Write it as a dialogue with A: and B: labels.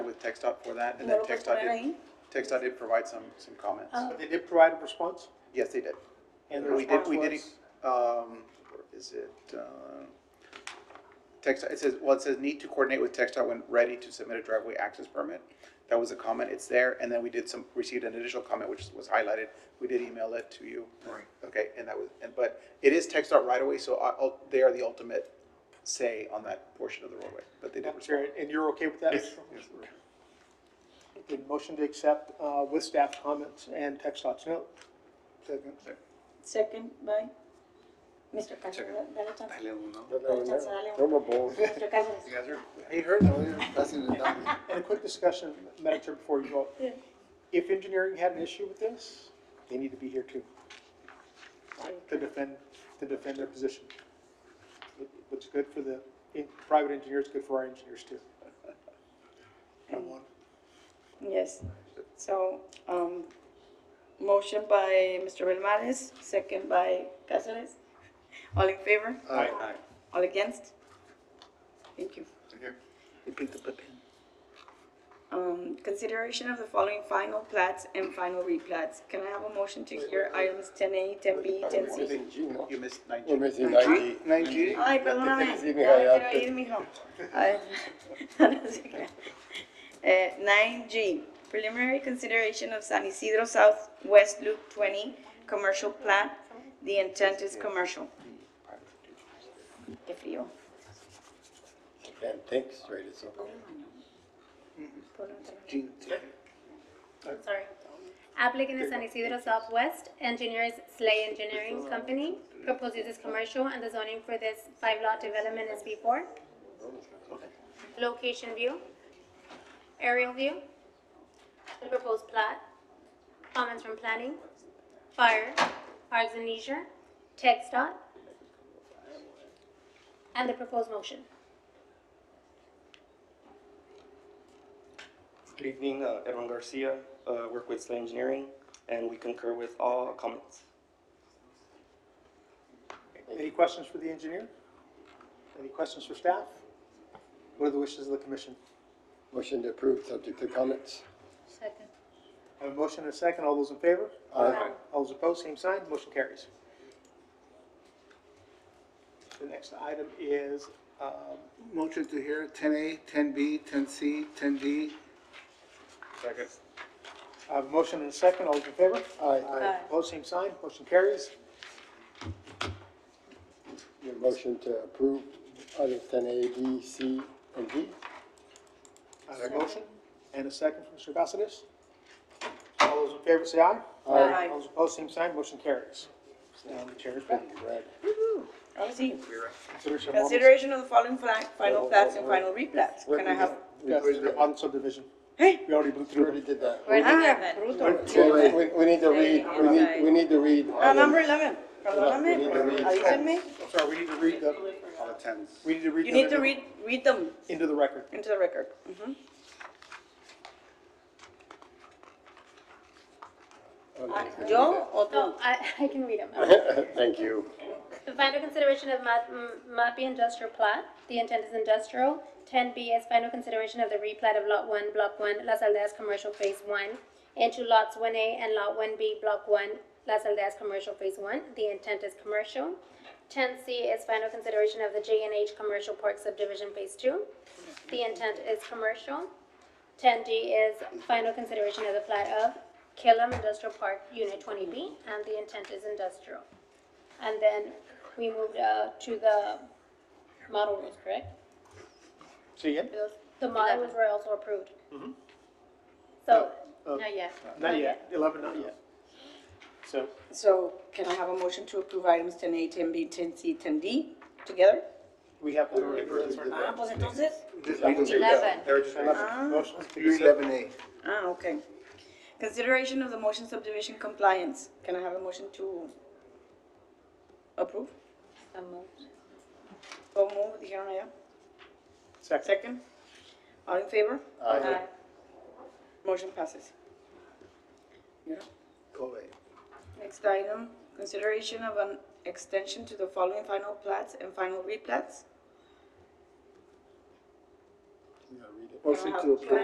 A: TechStop for that, and then
B: Luego, pues,
A: TechStop
B: poner
A: did,
B: ahí.
A: TechStop did provide some, some comments.
B: Ah.
C: They did provide a response?
A: Yes, they did.
C: And the
A: We did,
C: response
A: we did,
C: was?
A: um, where is it, uh, TechStop, it says, well, it says need to coordinate with TechStop when ready to submit a driveway access permit. That was a comment, it's there, and then we did some, received an additional comment which was highlighted, we did email it to you.
C: Right.
A: Okay, and that was, and, but it is TechStop right away, so I, I'll- they are the ultimate say on that portion of the roadway, but they did
C: Madam
A: respond.
C: Chair, and you're okay with that?
A: Yes.
C: The motion to accept uh, with staff comments and text docs note. Second.
B: Second by Mr. Cáceres. Dale chance. Dale chance, dale
D: No
B: un-
D: more balls.
B: Mr. Cáceres.
A: You guys are, hey, heard that?
C: And a quick discussion, Madam Chair, before you vote.
B: Yeah.
C: If engineering had an issue with this, they need to be here too, to defend, to defend their position. What- What's good for the in- private engineers, good for our engineers too.
B: Yes, so, um, motion by Mr. Velmares, second by Cáceres. All in favor?
A: Aye.
B: All against? Thank you. Um, consideration of the following final plats and final replats. Can I have a motion to hear items ten A, ten B, ten C?
A: You missed
D: We're
A: 9G.
D: missing 90.
B: Ay, perdóname, ya
D: Sí,
B: me
D: mija, ya
B: quiero
D: te-
B: ir, mijo. Ay, no se crea. Eh, nine G, preliminary consideration of San Isidro Southwest Loop twenty, commercial plat. The intent is commercial. Qué frío.
D: Can't think straight, it's okay.
E: sorry. Applicant is San Isidro Southwest Engineers Slay Engineering Company. Proposed use is commercial and the zoning for this five lot development is B four. Location view, aerial view, the proposed plat, comments from planning, fire, arts and leisure, text dot, and the proposed motion.
F: Good evening, uh, Edwin Garcia, uh, work with Slay Engineering, and we concur with all comments.
C: Any questions for the engineer? Any questions for staff? What are the wishes of the commission?
D: Motion to approve, subject to comments.
E: Second.
C: I have a motion and a second. All those in favor?
D: Aye.
C: All those opposed, same sign. Motion carries. The next item is, um,
G: Motion to hear ten A, ten B, ten C, ten D.
C: I have a motion and a second. All those in favor?
D: Aye.
C: Opposed, same sign. Motion carries.
D: Your motion to approve items ten A, B, C, and D.
C: I have a motion and a second from Mr. Bassett. All those in favor, say aye.
B: Aye.
C: All those opposed, same sign. Motion carries. Now the chair is back.
D: Right.
B: Ahora sí.
C: Consider some ordinance-
B: Consideration of the following fla- final plats and final replats. Can I have?
C: Yes, the bottom subdivision.
B: Hey.
C: We already blew
D: We
C: through it.
D: already did that.
E: Where did
B: Ah,
E: that?
B: bruto.
D: We, we, we need to read, we need, we need to read.
B: Ah,
D: items.
B: number eleven. Perdóname,
D: We need to read-
B: avísenme.
A: Sorry, we need to read the, all the tens.
C: We need to read
B: You
C: them
B: need to
C: into-
B: read, read them
C: into the record.
B: into the record. Mhm. ¿Yo o
E: No,
B: tú?
E: Oh, I, I can read them.
D: Thank you.
E: The final consideration of map, m- MAPI industrial plat, the intent is industrial. Ten B is final consideration of the replat of lot one, block one, Las Aldeas Commercial Phase One into lots one A and lot one B, block one, Las Aldeas Commercial Phase One, the intent is commercial. Ten C is final consideration of the J and H Commercial Park Subdivision Phase Two, the intent is commercial. Ten D is final consideration of the plat of Killam Industrial Park, Unit Twenty B, and the intent is industrial. And then we moved uh, to the model rules, correct?
C: See again?
E: Those- The model rules were also approved. So,
C: Uh,
E: not yet.
C: Not yet, eleven, not yet. So,
B: So can I have a motion to approve items ten A, ten B, ten C, ten D together?
C: we have.
B: Ah, pues entonces,
E: Eleven.
C: Motion to read
G: Eleven A.
B: ah, okay. Consideration of the motion subdivision compliance. Can I have a motion to approve? So move, dijeron allá.
C: Second.
B: Second? All in favor? Aye. Motion passes.
G: Go away.
B: Next item, consideration of an extension to the following final plats and final replats.
D: Yeah, read it.
G: Motion
B: Can I
G: to
B: have- can I
G: approve.